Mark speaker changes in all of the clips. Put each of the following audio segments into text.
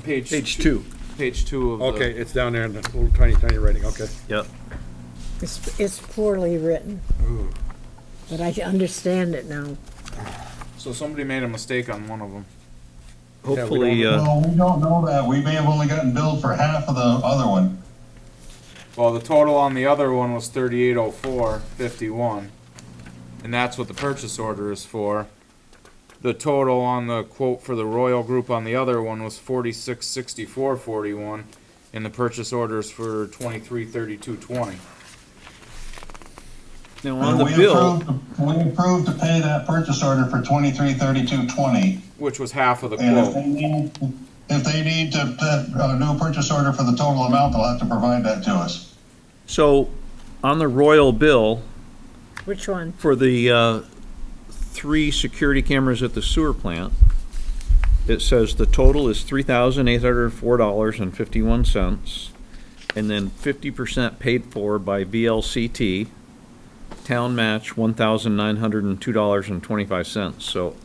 Speaker 1: page.
Speaker 2: Page two.
Speaker 1: Page two of the.
Speaker 2: Okay, it's down there in the little tiny, tiny writing, okay.
Speaker 3: Yep.
Speaker 4: It's, it's poorly written. But I understand it now.
Speaker 1: So somebody made a mistake on one of them.
Speaker 3: Hopefully, uh,
Speaker 5: No, we don't know that. We may have only gotten billed for half of the other one.
Speaker 1: Well, the total on the other one was thirty-eight oh four fifty-one, and that's what the purchase order is for. The total on the quote for the Royal Group on the other one was forty-six sixty-four forty-one, and the purchase order is for twenty-three thirty-two twenty.
Speaker 3: now on the
Speaker 5: And we
Speaker 3: bill,
Speaker 5: approved- We approved to pay that purchase order for twenty-three thirty-two twenty.
Speaker 1: Which was half of the
Speaker 5: And if they
Speaker 1: quote.
Speaker 5: need, if they need to, put a new purchase order for the total amount, they'll have to provide that to us.
Speaker 3: so on the Royal bill
Speaker 4: Which one?
Speaker 3: for the, uh, three security cameras at the sewer plant, it says the total is three thousand eight hundred and four dollars and fifty-one cents. And then fifty percent paid for by VLCT, town match one thousand nine hundred and two dollars and twenty-five cents. So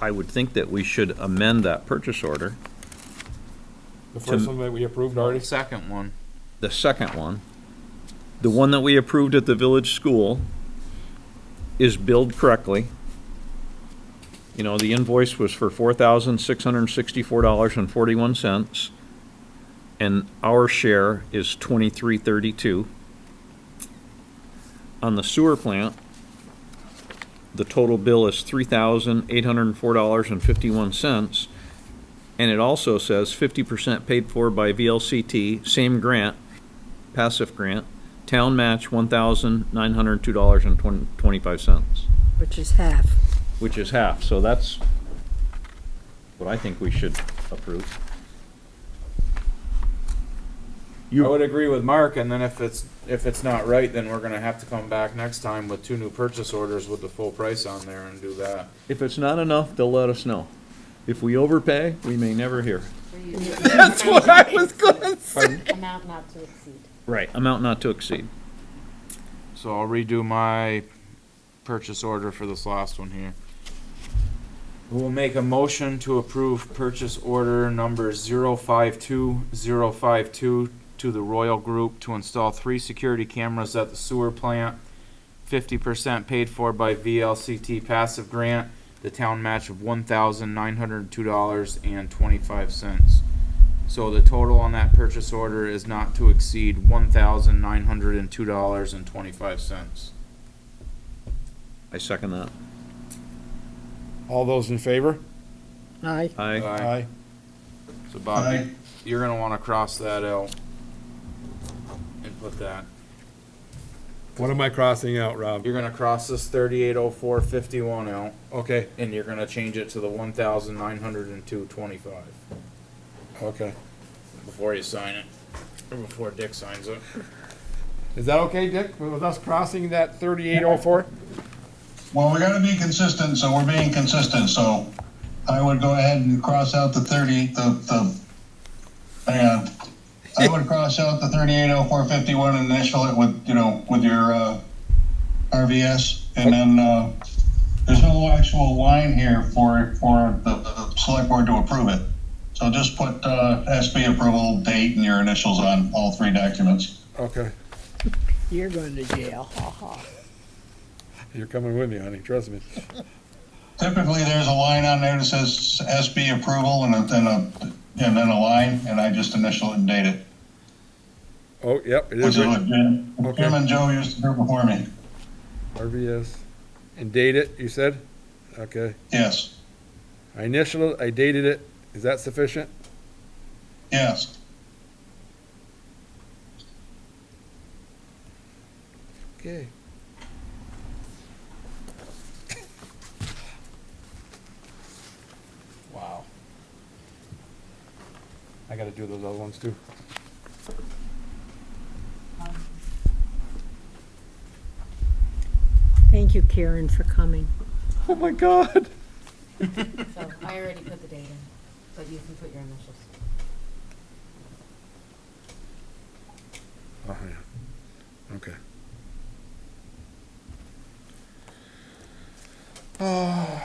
Speaker 3: I would think that we should amend that purchase order.
Speaker 2: The first one that we approved
Speaker 1: The
Speaker 2: already?
Speaker 1: second one,
Speaker 3: the second one, the one that we approved at the village school, is billed correctly. You know, the invoice was for four thousand six hundred and sixty-four dollars and forty-one cents, and our share is twenty-three thirty-two. On the sewer plant, the total bill is three thousand eight hundred and four dollars and fifty-one cents, and it also says fifty percent paid for by VLCT, same grant, passive grant, town match one thousand nine hundred two dollars and twenty-five cents,
Speaker 4: Which is half.
Speaker 3: which is half, so that's what I think we should approve.
Speaker 1: I would agree with Mark, and then if it's, if it's not right, then we're gonna have to come back next time with two new purchase orders with the full price on there and do that.
Speaker 3: If it's not enough, they'll let us know. If we overpay, we may never hear.
Speaker 6: That's what I was gonna say. Amount not to exceed.
Speaker 3: Right. Amount not to exceed.
Speaker 1: So I'll redo my purchase order for this last one here. We'll make a motion to approve purchase order number zero five two zero five two to the Royal Group to install three security cameras at the sewer plant. Fifty percent paid for by VLCT passive grant, the town match of one thousand nine hundred and two dollars and twenty-five cents. So the total on that purchase order is not to exceed one thousand nine hundred and two dollars and twenty-five cents.
Speaker 3: I second that.
Speaker 2: All those in favor?
Speaker 4: Aye.
Speaker 3: Aye.
Speaker 1: So
Speaker 5: Aye.
Speaker 1: Bobby, you're gonna wanna cross that out. And put that,
Speaker 2: What am I crossing out, Rob?
Speaker 1: you're gonna cross this thirty-eight oh four fifty-one out,
Speaker 2: Okay,
Speaker 1: and you're gonna change it to the one thousand nine hundred and two twenty-five
Speaker 2: okay.
Speaker 1: before you sign it, or before Dick signs it.
Speaker 2: Is that okay, Dick, with us crossing that thirty-eight oh four?
Speaker 5: Well, we gotta be consistent, so we're being consistent, so I would go ahead and cross out the thirty, the, the, hang on. I would cross out the thirty-eight oh four fifty-one and initial it with, you know, with your, uh, RVS, and then, uh, there's no actual line here for, for the, the select board to approve it. So just put, uh, SB approval date and your initials on all three documents.
Speaker 2: Okay,
Speaker 4: You're going to jail. Ha ha.
Speaker 2: you're coming with me, honey, trust me.
Speaker 5: Typically, there's a line on there that says SB approval and a- then a, and then a line, and I just initial it and date it.
Speaker 2: Oh, yep, it
Speaker 5: Which
Speaker 2: is
Speaker 5: is
Speaker 2: right,
Speaker 5: what Jim
Speaker 2: Okay.
Speaker 5: Jim and Joe used to do before me.
Speaker 2: RVS. And date it, you said? Okay.
Speaker 5: Yes,
Speaker 2: I initialed, it, I dated it, is that sufficient?
Speaker 5: yes.
Speaker 2: Okay. Wow. I gotta do those other ones too.
Speaker 4: Thank you, Karen, for coming.
Speaker 2: Oh my god.
Speaker 6: So I already put the date in, but you can put your initials.
Speaker 2: Oh, yeah. Okay. Oh.